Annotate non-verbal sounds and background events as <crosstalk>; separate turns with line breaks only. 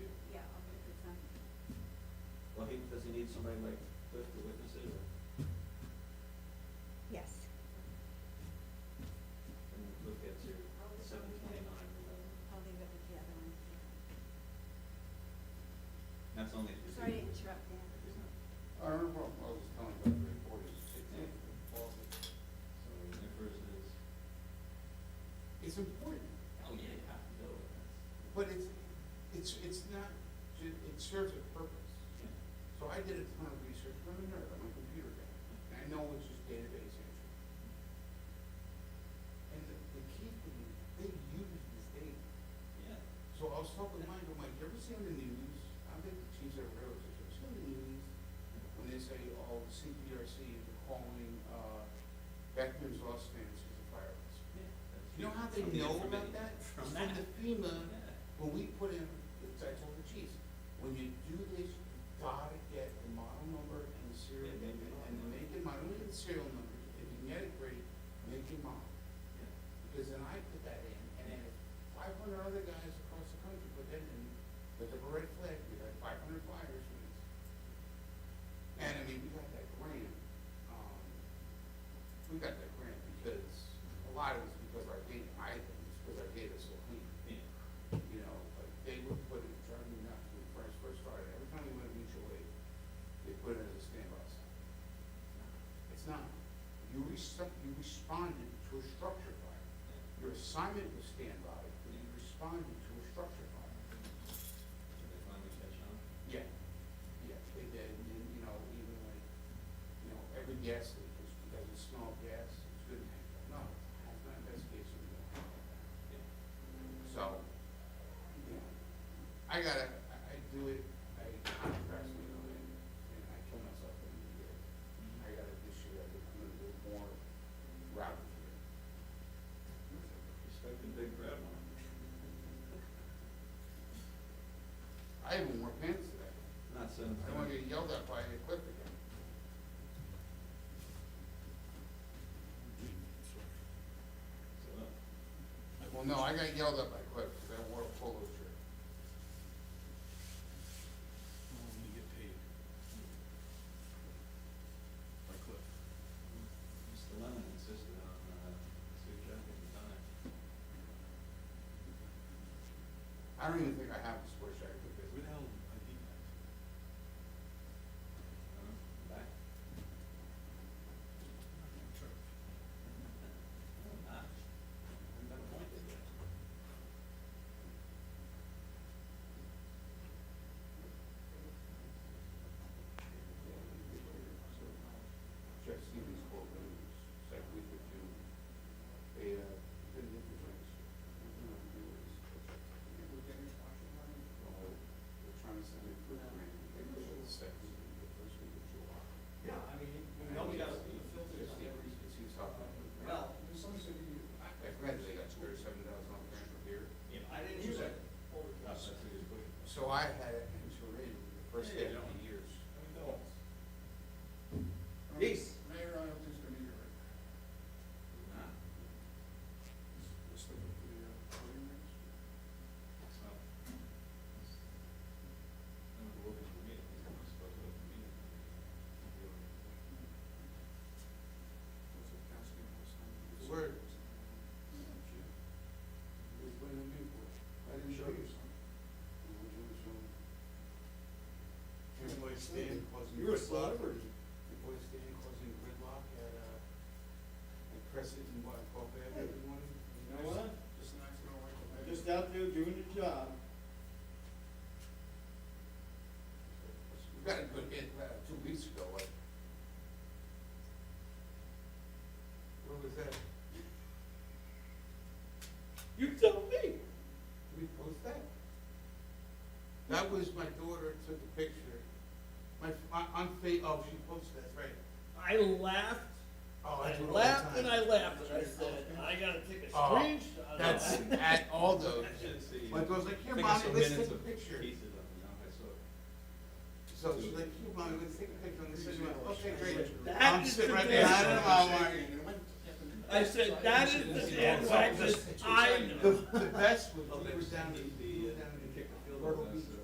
somebody like Cliff to witness it, or,
Yes.
and look at your seven twenty-nine or whatever.
I'll leave it with the other one.
That's only if you're.
Sorry to interrupt, Dan.
It's not,
I remember what I was telling about the report is it's in the closet.
so the first is,
It's important,
oh yeah, you have to go with that.
but it's, it's, it's not, ju- it serves a purpose.
Yeah.
So I did a ton of research, I'm a nerd, I'm a computer guy, and I know it's just database entry. And the, the key thing is, they use this data.
Yeah.
So I was talking to Mike, I'm like, you ever seen the news? I think the chiefs are railroad system, seen the news? When they say, oh, the CPRC is calling, uh, Beckman's Lost Fans as a fire risk.
Yeah, that's
You know how they
from the
know
informa-
about that?
From
It's
that.
the FEMA,
Yeah.
when we put in, it's, I told the chiefs, when you do this, you gotta get the model number and the serial,
Yeah, make
and,
it
and the
model.
make and model, look at the serial number, if you can get it great, make it model.
Yeah.
Because then I put that in, and then five hundred other guys across the country put that in, with the red flag, we had five hundred fires. and it's- And I mean, we got that grant, um, we got that grant because, a lot of it's because our data, I think it's because our data's so clean.
Yeah.
You know, like, they would put it, trying to not to, when I first started, every time we went to mutual aid, they put it as a standby sign. It's not, you respect, you responded to a structure fire.
Yeah.
Your assignment was standby, but you responded to a structure fire.
Did they finally catch on?
Yeah. Yeah, they did, and then, you know, even like, you know, every gas leak is, because it's small gas, it's good, no, it's not investigation, we don't have that.
Yeah.
So, you know, I gotta, I, I do it, I procrastinate, and, and I kill myself when I do it. I gotta, this year, I'm gonna do more routing here.
Respecting Big Red one.
I even wore pants today.
Not seven
I
twenty.
don't wanna get yelled at by the equipment again.
So, uh,
Well, no, I got yelled at by Cliff, because I wore a polo shirt.
Well, when you get paid. By Cliff.
Mr. Lemon insisted on, uh, suit jacket and tie.
I don't even think I have a sports jacket
Where the
because
hell did I eat that?
Uh, Back. Ah, Haven't been appointed yet.
Jeff Stevens called me, it's like week or two. They, uh, didn't look at my, you know, they were just- they were getting washing money. Well, They're trying to send me for grant. They were the second, week, the first week of July.
Yeah, I mean,
And I just- just the average, It seems hot.
Well-
I, I granted they got two hundred seven thousand on grant per year.
I didn't use that. That's what he was putting.
So I had it in Turin the first
Yeah,
day
you
of
don't.
the years.
Peace.
Mayor, I don't think it's gonna be right.
Nah,
Let's look at the, uh, voting records.
so. I'm gonna look at the meeting, he's not supposed to look at the meeting.
What's the council gonna have signed?
Word.
It's been a new board. I didn't show you some. You know, you were showing. Everybody stand causing.
You're a
gridlock.
celebrity.
Everybody stand causing gridlock at, uh, at Crescent and what, Buffet, everyone.
You know what?
Just an accident, like.
I'm just out there doing the job.
We got a good hit, uh, two weeks ago, like. Where was that?
You tell me.
Did we post that? That was my daughter took a picture. My, my, on Fa- oh, she posted that, right.
I laughed,
Oh,
I
do it all the
laughed
time.
and I laughed, and I said, I gotta take a
Oh,
screenshot. of
That's
that."
at
<laughs>
Aldo's.
I should see.
My daughter's like,
I
here,
think I
mommy,
saw
let's
minutes
take a
of
picture.
Pieces of, it, you know, I saw. it.
So she's like, here, mommy, let's take a picture on the cinema. Okay, great.
That
I'm
is
sitting
the
right
best.
behind her, I'm like,
I said, that is the best practice I know.
the, the best was,
Oh,
we
they
were down
the,
in,
uh,
down in
they kicked the field
Myrtle
goal,
Beach,
so-